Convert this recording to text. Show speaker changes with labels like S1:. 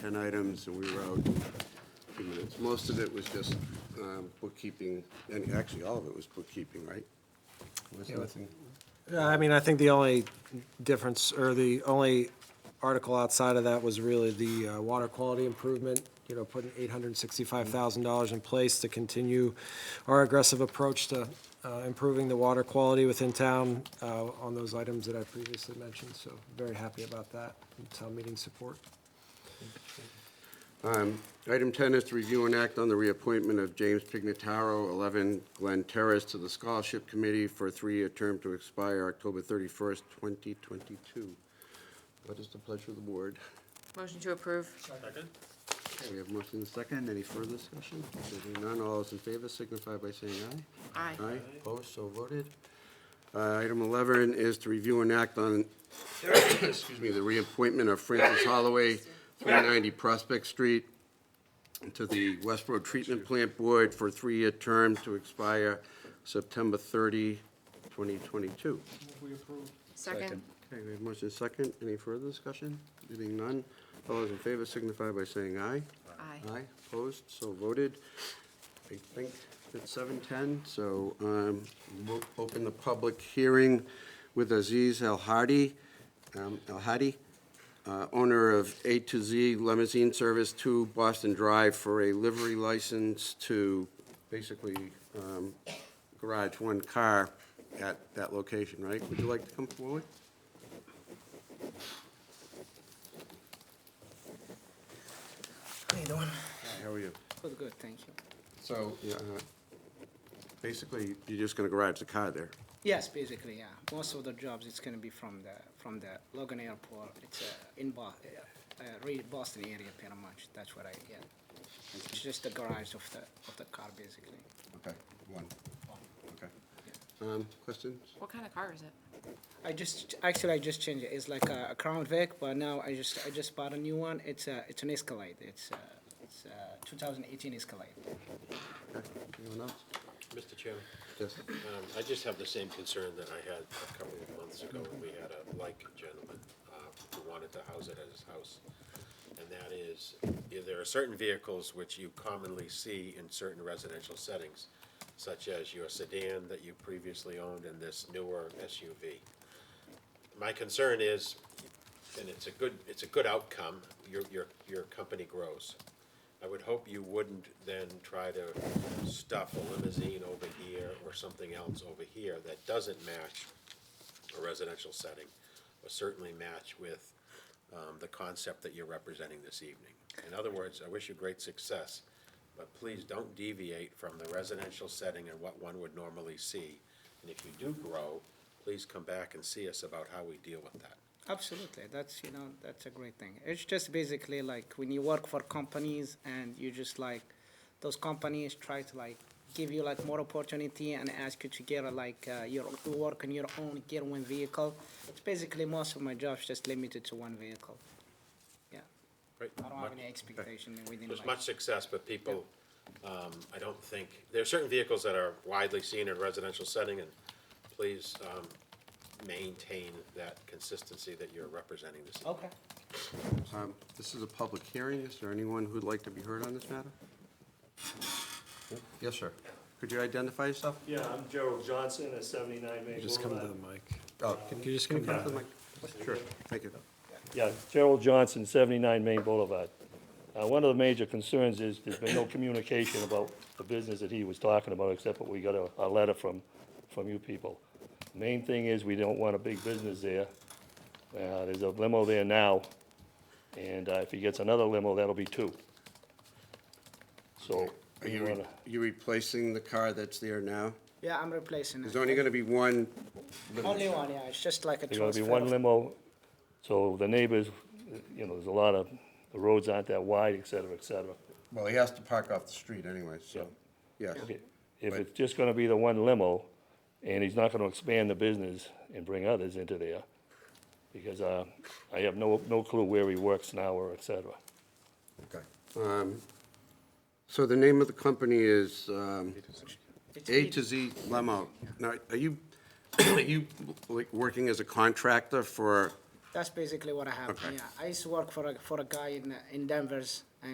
S1: 10 items, and we were out two minutes. Most of it was just um, bookkeeping, and actually, all of it was bookkeeping, right? There was nothing,
S2: Yeah, I mean, I think the only difference, or the only article outside of that was really the uh, water quality improvement, you know, putting $865,000 in place to continue our aggressive approach to uh, improving the water quality within town uh, on those items that I previously mentioned, so very happy about that, and town meeting support.
S1: Item 10 is to review and act on the reappointment of James Pignataro, 11 Glen Terrace, to the Scholarship Committee for a three-year term to expire October 31st, 2022. What is the pleasure of the board?
S3: Motion to approve.
S1: Okay, we have motion and second. Any further discussion? There being none, all those in favor signify by saying aye.
S3: Aye.
S1: Aye, opposed, so voted. Uh, Item 11 is to review and act on, excuse me, the reappointment of Francis Holloway, 490 Prospect Street, to the West Road Treatment Plant Board for a three-year term to expire September 30, 2022.
S3: Second.
S1: Okay, we have motion and second. Any further discussion? There being none, all those in favor signify by saying aye.
S3: Aye.
S1: Aye, opposed, so voted. I think it's seven ten, so um, we'll open the public hearing with Aziz El Hadi, um, El Hadi, uh, owner of A to Z Limousine Service to Boston Drive for a livery license to basically um, garage one car at that location, right? Would you like to come forward? Hi, How are you?
S4: Good, good, thank you.
S1: So, yeah, uh, basically, you're just gonna garage the car there.
S4: Yes, basically, yeah. Most of the jobs, it's gonna be from the, from the Logan Airport. It's uh, in Bo- uh, uh, re- Boston area, pretty much. That's what I, yeah. It's just the garage of the, of the car, basically.
S1: Okay, one. Okay. Um, questions?
S3: What kind of car is it?
S4: I just, actually, I just changed it. It's like a a Crown Vic, but now I just, I just bought a new one. It's a, it's an Escalade. It's a, it's uh, a 2018 Escalade.
S1: Okay, Anyone else?
S5: Mr. Chairman,
S1: Yes.
S5: um, I just have the same concern that I had a couple of months ago when we had a like gentleman uh, who wanted to house it at his house. And that is, yeah, there are certain vehicles which you commonly see in certain residential settings, such as your sedan that you previously owned and this newer SUV. My concern is, and it's a good, it's a good outcome, your, your, your company grows. I would hope you wouldn't then try to stuff a limousine over here or something else over here that doesn't match a residential setting, or certainly match with um, the concept that you're representing this evening. In other words, I wish you great success, but please don't deviate from the residential setting and what one would normally see. And if you do grow, please come back and see us about how we deal with that.
S4: Absolutely, that's, you know, that's a great thing. It's just basically like when you work for companies and you just like, those companies try to like give you like more opportunity and ask you to get a, like uh, your to work on your own, get one vehicle. It's basically most of my jobs just limited to one vehicle. Yeah,
S5: Right?
S4: I don't have any expectation within
S5: There's
S4: like.
S5: much success, but people, um, I don't think, there are certain vehicles that are widely seen in residential setting, and please, um, maintain that consistency that you're representing this. evening.
S4: Okay.
S1: Um, this is a public hearing. Is there anyone who'd like to be heard on this matter? Yes, sir. Could you identify yourself?
S6: Yeah, I'm Gerald Johnson at 79 Main Boulevard.
S2: Just come to the mic.
S1: Oh, can
S2: you just
S1: can
S2: come
S1: to the mic? Sure, thank you.
S6: Yeah, Gerald Johnson, 79 Main Boulevard. Uh, One of the major concerns is there's been no communication about the business that he was talking about, except what we got a, a letter from, from you people. Main thing is, we don't want a big business there. Uh, There's a limo there now, and uh, if he gets another limo, that'll be two. So,
S1: Are
S6: we
S1: you, re-
S6: wanna,
S1: you replacing the car that's there now?
S4: Yeah, I'm replacing
S1: There's
S4: it.
S1: only gonna be one.
S4: Only one, yeah, it's just like a
S6: There's gonna
S4: transfer.
S6: be one
S4: of-
S6: limo, so the neighbors, you know, there's a lot of, the roads aren't that wide, et cetera, et cetera.
S1: Well, he has to park off the street anyway, so, yes.
S6: Okay, If it's just gonna be the one limo, and he's not gonna expand the business and bring others into there, because, uh, I have no, no clue where he works now or et cetera.
S1: Okay. Um, So the name of the company is um, A to Z Lemo. Now, are you, are you like working as a contractor for
S4: That's basically what I have, yeah. I used to work for a, for a guy in, in Denver's, and